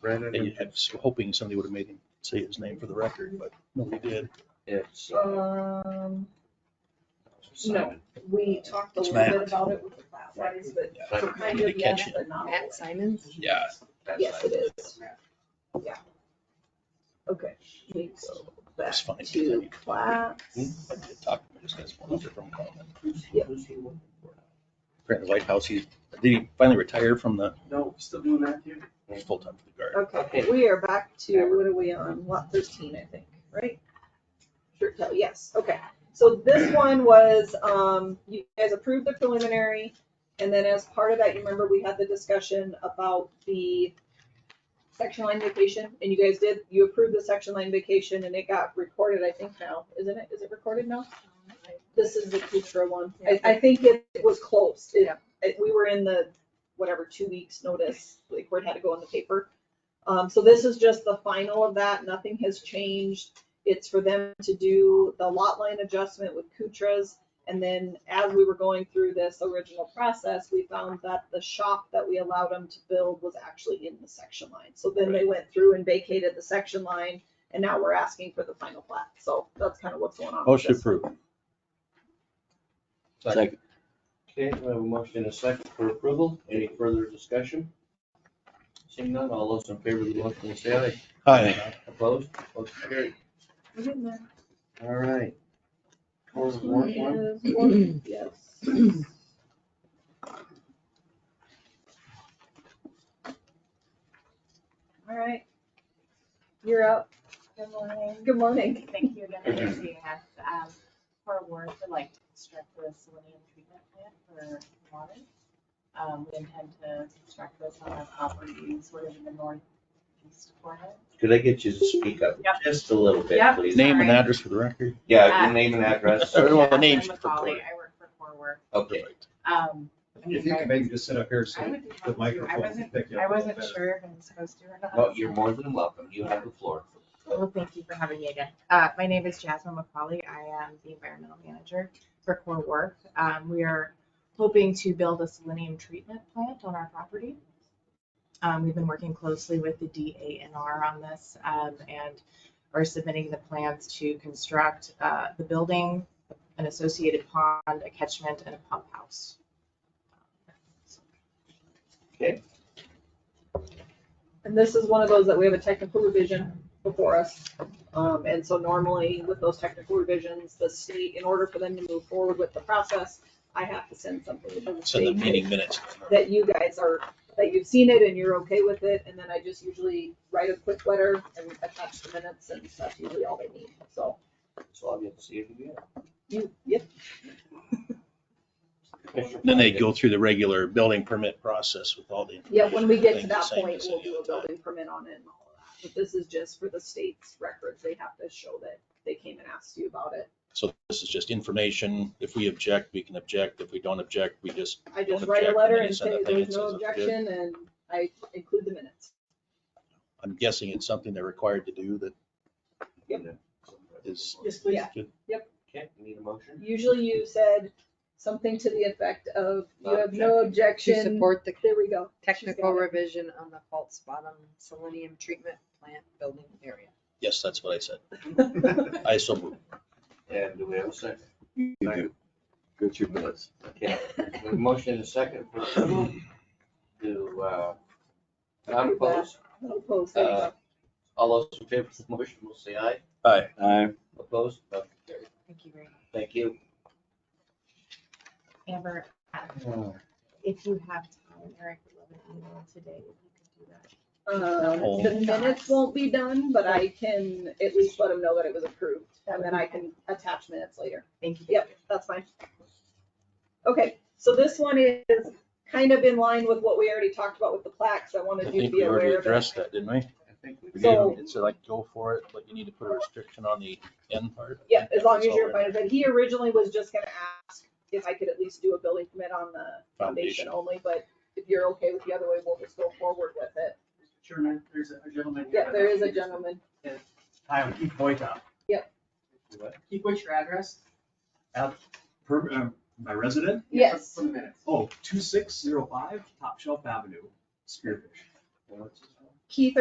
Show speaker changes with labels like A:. A: Brandon
B: And
A: and
B: you had, was hoping somebody would have made him say his name for the record, but nobody did.
C: It's.
D: Um,
C: Simon.
D: we talked a
B: It's
D: little
B: Matt.
D: bit about it with the class size, but
C: Simon.
D: kind
B: Did
D: of
B: you catch
D: yes,
B: it?
D: but not.
E: Matt Simons?
B: Yeah.
C: That's
D: Yes,
C: Simon.
D: it is. Yeah. Okay, we go back
B: It's funny.
D: to class.
B: I did talk to him, I just got his phone number from him.
C: Who's
D: Yeah.
C: who's he working for now?
B: Grant the White House, he, did he finally retire from the,
C: No, still doing that here?
B: he's full-time for the Guard?
D: Okay, we are back to, what are we on, lot thirteen, I think, right? Sure, tell, yes, okay. So this one was, um, you guys approved the preliminary, and then as part of that, you remember we had the discussion about the section line vacation, and you guys did, you approved the section line vacation, and it got recorded, I think now, isn't it? Is it recorded now? This is the Kuchra one. I, I think it it was closed. It,
E: Yeah.
D: it- we were in the, whatever, two weeks notice, like where it had to go in the paper. Um, so this is just the final of that. Nothing has changed. It's for them to do the lot line adjustment with Kuchras. And then as we were going through this original process, we found that the shop that we allowed them to build was actually in the section line. So then they went through and vacated the section line and now we're asking for the final plat. So that's kind of what's going on. with
B: Motion
D: this.
B: approved.
C: Second. Okay, we have a motion and a second for approval. Any further discussion? Seeing none, all those in favor of the motion will say aye.
B: Hi,
C: Opposed? Motion carried.
D: We're getting there.
C: All right. Or warrant one?
D: Yes, one, Yes. All right. You're up.
F: Good morning.
D: Good morning.
F: Thank you again for seeing us. Um, For work, we'd like to construct the salinity treatment plant for water. Um, We intend to construct this on our property, sort of in the northeast corner.
C: Could I get you to speak up
F: Yep.
C: just a little bit,
F: Yep.
C: please?
B: name and address for the record.
C: Yeah, your name and address.
B: Sorry, well, the
F: I'm
B: name's
F: Macaulay.
B: for-
F: I work for Core Work.
C: Okay.
F: Um, I mean,
G: If you
F: I-
G: could maybe just sit up here so
F: I would be
G: the
F: happy to. I
G: microphone can
F: wasn't,
G: pick you
F: I
G: up. a little
F: wasn't
G: better.
F: sure if I'm supposed to or not.
C: No, you're more than welcome. You have the floor.
F: Well, thank you for having me again. Uh, my name is Jasmine McCauley. I am the environmental manager for Core Work. Um, we are hoping to build a selenium treatment plant on our property. Um, we've been working closely with the DANR on this, um, and are submitting the plans to construct, uh, the building, an associated pond, a catchment, and a pump house.
D: And this is one of those that we have a technical revision before us. Um, and so normally with those technical revisions, the state, in order for them to move forward with the process, I have to send something to the
B: Send the
D: state
B: meeting minutes.
D: that you guys are, that you've seen it and you're okay with it, and then I just usually write a quick letter and attach the minutes, and that's usually all they need, so.
C: So I'll get to see you again.
D: You, yep,
B: Then they go through the regular building permit process with all the.
D: yep, when we get to
B: information,
D: that
B: same
D: point,
B: as
D: we'll
B: any
D: do a
B: other time.
D: building permit on it and all of that, but this is just for the state's records, they have to show that they came and asked you about it.
B: So this is just information. If we object, we can object. If we don't object, we just,
D: I just
B: Don't
D: write a
B: object,
D: letter
B: and
D: and
B: send
D: say
B: a thing
D: there's
B: that
D: no
B: says it's good.
D: objection, and I include the minutes.
B: I'm guessing it's something they're required to do that is.
D: Yes, please. Yeah.
C: Okay, need a motion?
D: Usually you said something to the effect of, you have no
E: To
D: objection,
E: support the
D: there we go. She's
E: technical
D: got it.
E: revision on the false bottom selenium treatment plant building area.
B: Yes, that's what I said. I so moved.
C: And do we have a second?
H: You do. Go to your minutes.
C: Okay, we have a motion and a second for approval to, uh, not oppose.
D: No post, there you go.
C: Uh, All those in favor of the motion will say aye.
H: Aye.
C: Opposed? Motion carried.
F: Thank you very much.
C: Thank you.
F: Amber, uh, if you have time, Eric would love an email today, if you could do that.
D: Um,
B: Oh.
D: The minutes won't be done, but I can at least let them know that it was approved, and then I can attach minutes later.
F: Thank you.
D: Yep, that's fine. Okay, so this one is kind of in line with what we already talked about with the plaques, I
B: I
D: wanted you to
B: think
D: be
B: we already
D: aware of it.
B: addressed that, didn't we?
D: So-
B: It's like, go for it, but you need to put a restriction on the end part.
D: Yeah, as long as
B: That's all
D: you're
B: in
D: fine with it. He originally was just gonna ask if I could at least do a building permit on the foundation
B: Foundation.
D: only, but if you're okay with the other way, we'll just go forward with it.
I: Chairman, there's a gentleman. here.
D: Yeah, there is a gentleman.
I: Hi, I'm Keith Boytown.
C: What?
I: Keith, what's your address? Uh, per, um, my resident?
D: Yes.
I: For the minutes. Oh, two six zero five Top Shelf Avenue, Spearfish.
C: What's his name?
E: Keith